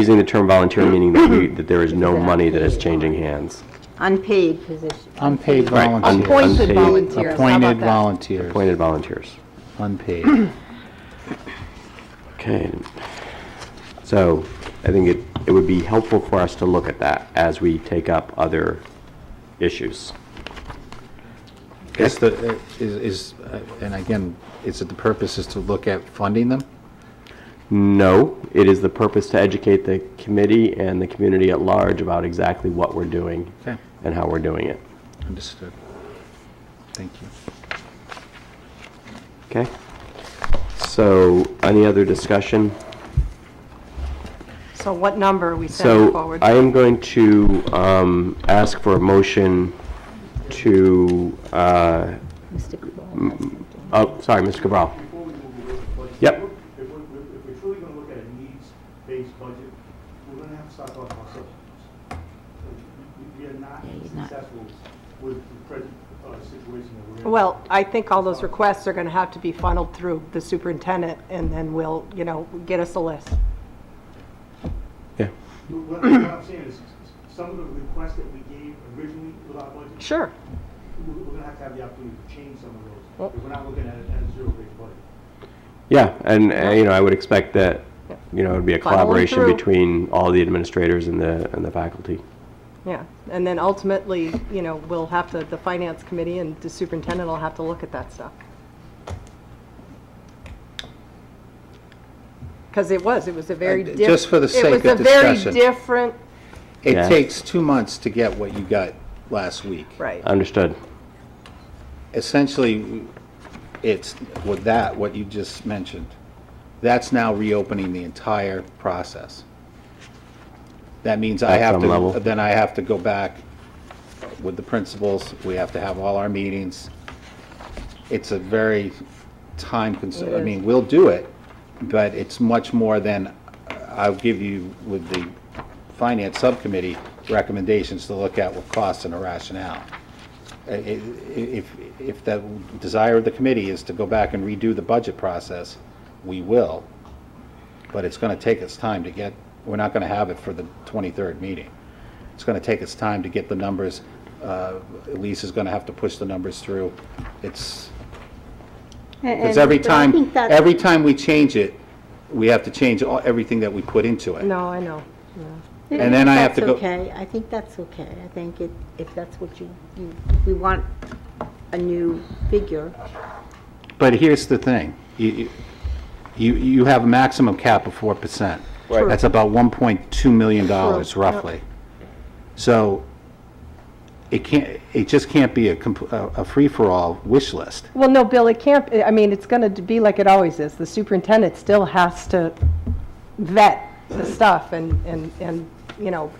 Using the term volunteer meaning that we, that there is no money that is changing hands. Unpaid position. Unpaid Right, volunteers. unpaid. Appointed Unpaid. volunteers, how Appointed about that? volunteers, Appointed volunteers. unpaid. Okay. So I think it, it would be helpful for us to look at that as we take up other issues. Is the, is, is, uh, and again, is it the purpose is to look at funding them? No, it is the purpose to educate the committee and the community at large about exactly what we're doing Okay. and how we're doing it. Understood. Thank you. Okay? So any other discussion? So what number are we sending So forward? I am going to um, ask for a motion to, uh, Mr. Cabral has something. oh, sorry, Mr. Cabral. Before we move away from budget, Yep. If we're, if we're truly gonna look at a needs-based budget, we're gonna have to start talking about substitutes. We- We are not you're not. successful with the present, uh, situation that we're in. Well, I think all those requests are going to have to be funneled through the superintendent, and then we'll, you know, get us a list. Yeah. What what I'm saying is, some of the requests that we gave originally with our budget, Sure. we- we're gonna have to have the opportunity to change some of those. If we're not looking at a, at a zero-based budget. Yeah, and, uh, you know, I would expect that, you know, it would be a Funnel them collaboration through. between all the administrators and the, and the faculty. Yeah, and then ultimately, you know, we'll have to, the finance committee and the superintendent will have to look at that stuff. Because it was, it was a very. Uh, diff- just for the sake of It was a discussion. very different, Yeah. It takes two months to get what you got last week. right, Understood. Essentially, it's with that, what you just mentioned, that's now reopening the entire process. That means I At have some level. to, then I have to go back with the principals, we have to have all our meetings. It's a very time consuming, I It is. mean, we'll do it, but it's much more than, I'll give you with the finance subcommittee recommendations to look at with costs and a rationale. I- i- If, if the desire of the committee is to go back and redo the budget process, we will, but it's going to take its time to get, we're not going to have it for the 23rd meeting. It's going to take its time to get the numbers, uh, Elise is going to have to push the numbers through. It's, because every And- but I time, think that- every time we change it, we have to change all- everything that we put into it. no, I know. and then I have to go- That's okay, I think that's okay. I think it, if that's what you, you, we want a new figure. But here's the thing, you, you- you, you have a maximum cap of four percent. Right. That's about one point two million dollars roughly. So it can't, it just can't be a, comp- a a free-for-all wish list. Well, no, Bill, it can't, I mean, it's going to be like it always is. The superintendent still has to vet the stuff and, and, and, you know,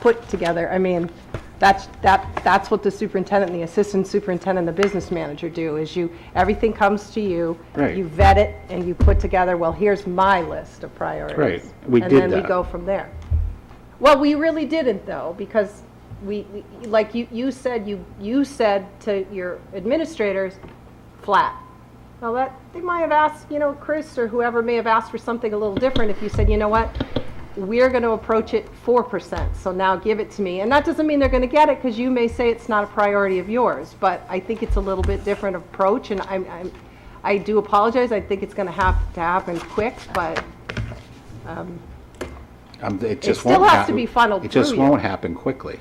put together, I mean, that's, that, that's what the superintendent, the assistant superintendent, the business manager do, is you, everything comes to you. Right. You vet it and you put together, well, here's my list of priorities. Right, we did And then we that. go from there. Well, we really didn't though, because we, we- like you, you said, you, you said to your administrators, flat. Well, that, they might have asked, you know, Chris or whoever may have asked for something a little different if you said, you know what? We're going to approach it 4%, so now give it to me. And that doesn't mean they're going to get it because you may say it's not a priority of yours, but I think it's a little bit different approach and I'm, I'm, I do apologize. I think it's going to have to happen quick, but Um, It just still won't has to happen- be funneled It just through you. won't happen quickly.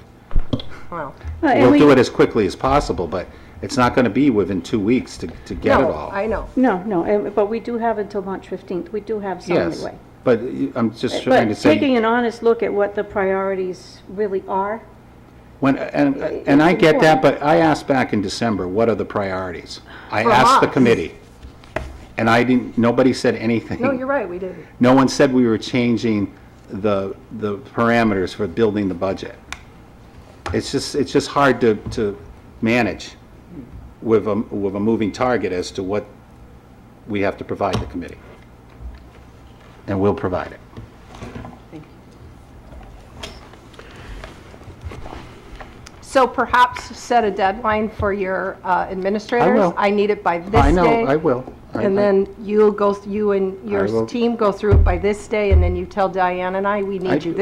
well. We'll do it as quickly as possible, but it's not going to be within two weeks to, to get it No, all. I know. No, no, and- but we do have until March 15th, we do have some Yes, leeway. but you- I'm just trying But to say. taking an honest look at what the priorities really are, When, and, and I get that, but I asked back in December, what are the priorities? I For asked the us. committee, and I didn't, nobody said anything. No, you're right, we didn't. No one said we were changing the, the parameters for building the budget. It's just, it's just hard to, to manage with a, with a moving target as to what we have to provide the committee. And we'll provide it. So perhaps set a deadline for your uh, administrators? will. I need it by this day. I know, I will. I And then you'll go, you and I will- your team go through it by this day, and then you tell Diane and I, we I- need you